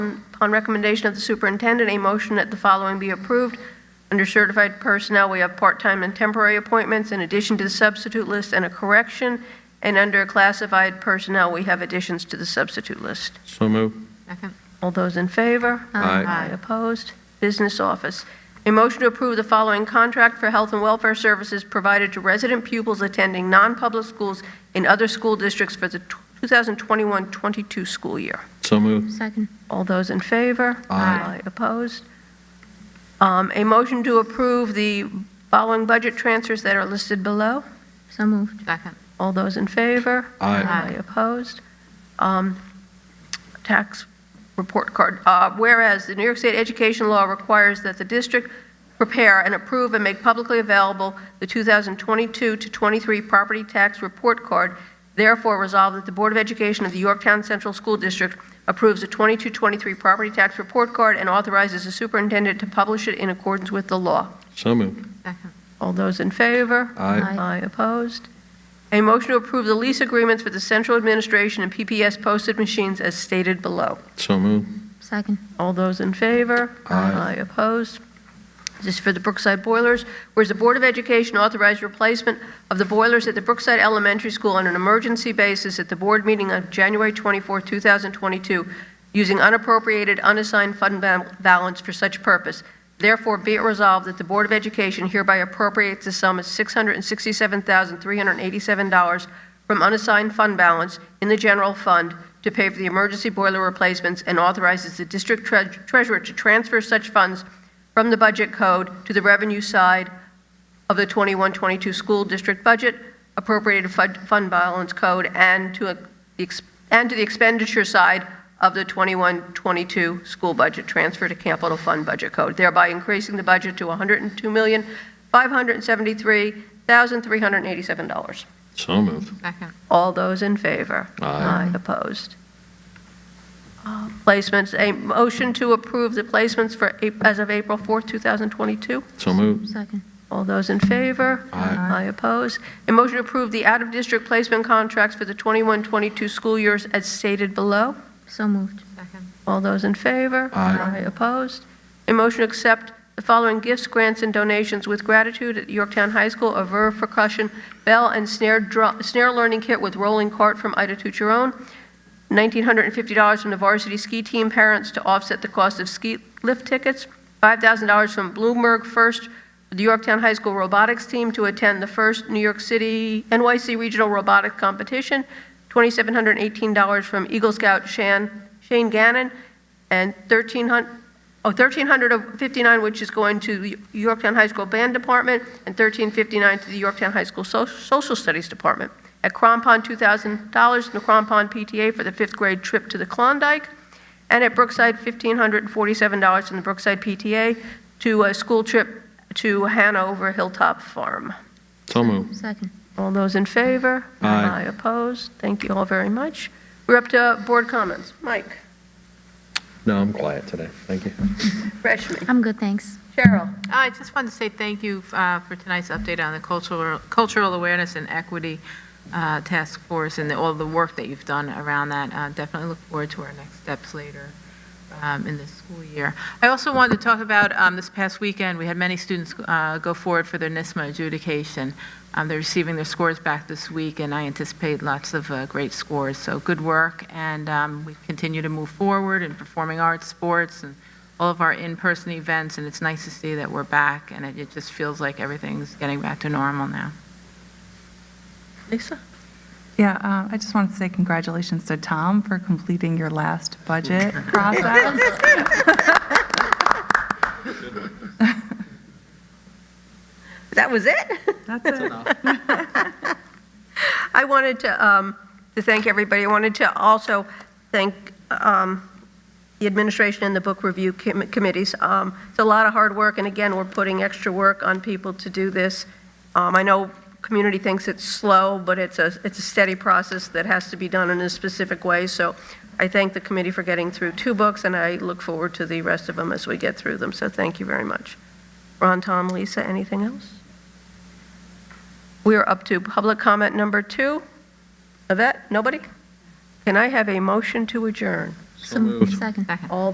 on, on recommendation of the superintendent, a motion that the following be approved. Under certified personnel, we have part-time and temporary appointments in addition to the substitute list and a correction. And under classified personnel, we have additions to the substitute list. So moved. Second. All those in favor? Aye. Aye opposed? Business office. A motion to approve the following contract for health and welfare services provided to resident pupils attending non-public schools in other school districts for the 2021-22 school year. So moved. Second. All those in favor? Aye. Opposed? Um, A motion to approve the following budget transfers that are listed below. So moved. Second. All those in favor? Aye. Aye opposed. Um, Tax report card. Uh, Whereas the New York State education law requires that the district prepare and approve and make publicly available the 2022 to 23 property tax report card, therefore resolved that the Board of Education of the Yorktown Central School District approves the 22-23 property tax report card and authorizes the superintendent to publish it in accordance with the law. So moved. Second. All those in favor? Aye. Aye opposed. A motion to approve the lease agreements for the central administration and PPS posted machines as stated below. So moved. Second. All those in favor? Aye. opposed. This is for the Brookside boilers. Whereas the Board of Education authorized replacement of the boilers at the Brookside Elementary School on an emergency basis at the board meeting on January 24, 2022, using unappropriated unassigned fund ba- balance for such purpose. Therefore, be it resolved that the Board of Education hereby appropriates the sum of $667,387 from unassigned fund balance in the general fund to pay for the emergency boiler replacements and authorizes the district tre- treasurer to transfer such funds from the budget code to the revenue side of the 21-22 school district budget, appropriated fund fund balance code, and to a- the ex- and to the expenditure side of the 21-22 school budget, transfer to capital fund budget code, thereby increasing the budget to $102,573,387. So moved. Second. All those in favor? Aye. Opposed? Uh, Placements, a motion to approve the placements for, Ap- as of April 4th, 2022? So moved. Second. All those in favor? Aye. I oppose. A motion to approve the out-of-district placement contracts for the 21-22 school years as stated below. So moved. Second. All those in favor? Aye. opposed. A motion to accept the following gifts, grants, and donations with gratitude at Yorktown High School, a Verve percussion bell and snare drum, snare learning kit with rolling cart from Ida Tucheron, $1,950 from the varsity ski team parents to offset the cost of ski lift tickets, $5,000 from Bloomberg First, the Yorktown High School robotics team to attend the first New York City NYC Regional Robotics Competition, $2,718 from Eagle Scout Shan, Shane Gannon, and 1,300, oh, 1,359, which is going to the Yorktown High School Band Department, and 1,359 to the Yorktown High School So- Social Studies Department. At Crompond, $2,000 from the Crompond PTA for the fifth grade trip to the Klondike, and at Brookside, $1,547 from the Brookside PTA to a school trip to Hanover Hilltop Farm. So moved. Second. All those in favor? Aye. opposed? Thank you all very much. We're up to board comments. Mike, No, I'm quiet today. Thank you. Rashmi, I'm good, thanks. Cheryl. I just wanted to say thank you uh, for tonight's update on the cultural cultural awareness and equity uh, task force and the- all the work that you've done around that. Uh, Definitely look forward to our next steps later um, in the school year. I also wanted to talk about um, this past weekend, we had many students uh, go forward for their NISMA adjudication. Um, They're receiving their scores back this week, and I anticipate lots of uh, great scores. So good work, and um, we continue to move forward in performing arts, sports, and all of our in-person events, and it's nice to see that we're back, and it, it just feels like everything's getting back to normal now. Lisa? Yeah, uh, I just want to say congratulations to Tom for completing your last budget process. That was it? That's it. I wanted to, um, to thank everybody. I wanted to also thank, um, the administration and the book review com- committees. Um, it's a lot of hard work, and again, we're putting extra work on people to do this. Um, I know community thinks it's slow, but it's a, it's a steady process that has to be done in a specific way, so I thank the committee for getting through two books, and I look forward to the rest of them as we get through them, so thank you very much. Ron, Tom, Lisa, anything else? We are up to public comment number two. Yvette, nobody? Can I have a motion to adjourn? So moved. Second. Second. All